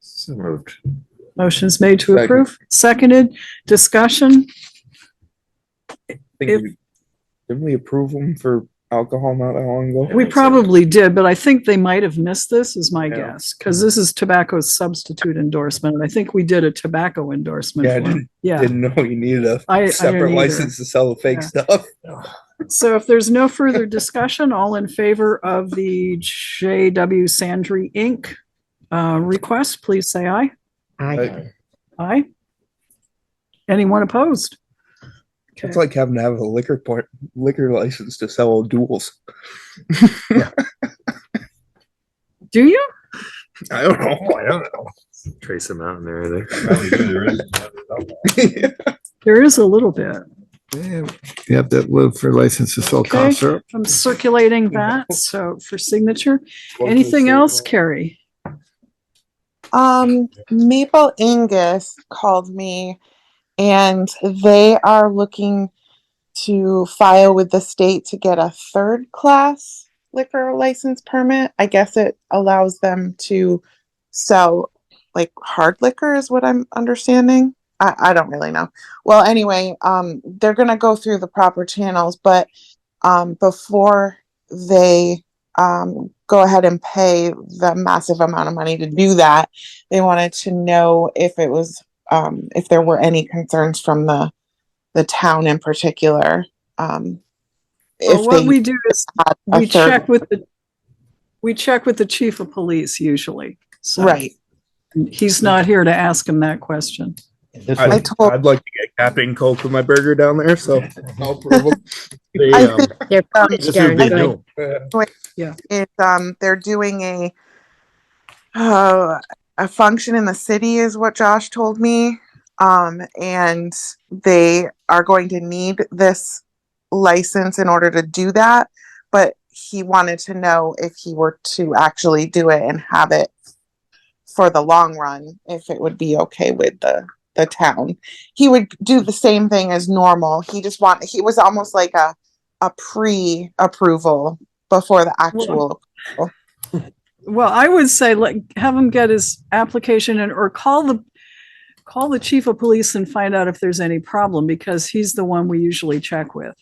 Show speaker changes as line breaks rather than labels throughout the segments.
So moved.
Motion's made to
Second.
approve, seconded, discussion,
I
If-
think we- Didn't we approve them for alcohol not that long ago?
we probably did, but I think they might have missed this is my
Yeah.
guess. Cause this is tobacco substitute endorsement, and I think we did a tobacco endorsement.
Yeah, I
for 'em.
didn't,
Yeah,
didn't know you needed
I- I
a
didn't
separate
either.
license to sell the fake
Yeah.
stuff.
so if there's no further discussion, all in favor of the JW Sandry Inc. Uh, request, please say aye.
Aye.
Aye. Anyone opposed?
It's
Okay.
like having to have a liquor part, liquor license to sell duels.
Do you?
I don't know, I don't know.
Trace them out in there. There.
There is a little bit.
Yeah, You have to live for license to sell
Okay.
cough syrup.
I'm circulating that, so for signature. Anything else, Carrie?
Um, Maple Angus called me and they are looking to file with the state to get a third class liquor license permit. I guess it allows them to sell like hard liquor is what I'm understanding. I, I don't really know. Well, anyway, um, they're gonna go through the proper channels, but um, before they um, go ahead and pay the massive amount of money to do that, they wanted to know if it was um, if there were any concerns from the the town in particular. Um,
Well,
if
what
they
we do is
had a
we
third-
check with the, we check with the chief of police usually. So
right.
He's not here to ask him that question.
I
I'd
told.
I'd like to get Captain Coke with my burger down there, so. I'll approve 'em.
I think
They're
Um,
pretty
this
darn
big
good.
deal. is um they're doing a uh, a function in the city is what Josh told me um and they are going to need this license in order to do that but he wanted to know if he were to actually do it and have it for the long run if it would be okay with the the town he would do the same thing as normal he just want he was almost like a a pre-approval before the actual
Well, I would say like have him get his application and or call the call the chief of police and find out if there's any problem because he's the one we usually check with.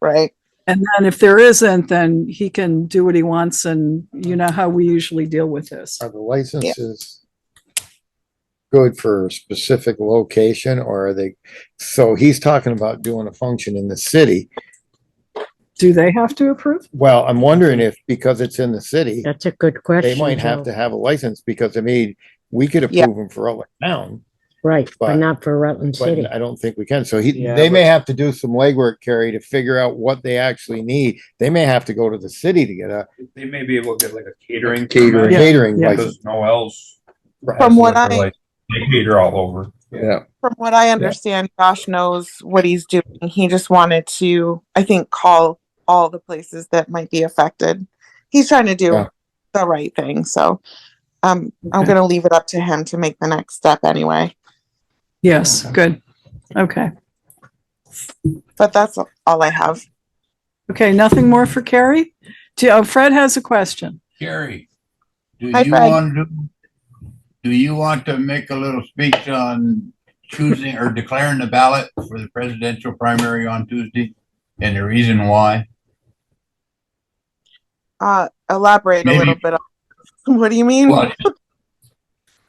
right
And then if there isn't, then he can do what he wants and you know how we usually deal with this.
Are the licenses good for a specific location or are they, so he's talking about doing a function in the city.
Do they have to approve?
Well, I'm wondering if, because it's in the city,
That's a good question.
they might have
Joe.
to have a license because I mean, we could
Yeah.
approve them for Rutland Town,
Right, but
but-
not for Rutland City.
but I don't think we can. So he,
Yeah,
they may have to do some legwork, Carrie, to figure out what they actually need. They may have to go to the city to get a
They may be able to get like a catering.
Catering.
permit,
catering
Yeah.
license.
Because no else.
From what I-
They cater all over.
Yeah,
from what i understand josh knows what he's doing he just wanted to i think call all the places that might be affected he's trying to do
Yeah.
the right thing so um, i'm
Okay.
going to leave it up to him to make the next step anyway
Yes, good. Okay.
but that's all i have
Okay, nothing more for Carrie? Do- oh, Fred has a question.
Gary, do
Hi,
you
Fred.
want to, do you want to make a little speech on choosing or declaring the ballot for the presidential primary on Tuesday? And the reason why?
uh, elaborate a
Maybe-
little bit on what do you mean
Well,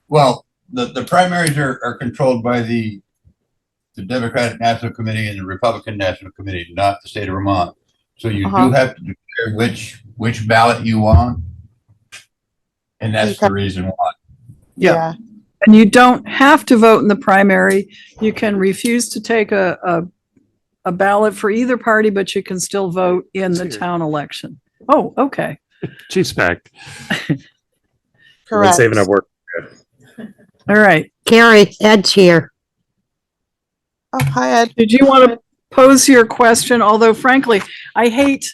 well, the, the primaries are, are controlled by the, the Democratic National Committee and the Republican National Committee, not the state of Vermont. So you
Uh-huh.
do have to declare which, which ballot you want. And that's the reason why.
Yeah. And you don't have to vote in the primary. You can refuse to take a, a, a ballot for either party, but you can still vote in the town election. Oh, okay.
Chiefs pack. We've been
correct
saving up work.
All right.
Carrie, Ed's here.
oh hi ed
Did you want to pose your question? Although frankly, I hate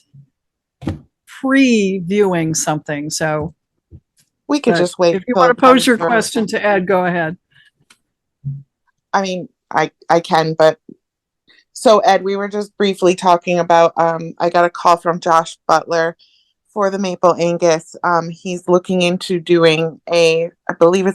previewing something, so
we could
but
just wait
if you
till
want
it
to pose
comes
your
through.
question to Ed, go ahead.
I mean, I I can, but so Ed, we were just briefly talking about um I got a call from Josh Butler for the Maple Angus. Um he's looking into doing a I believe it's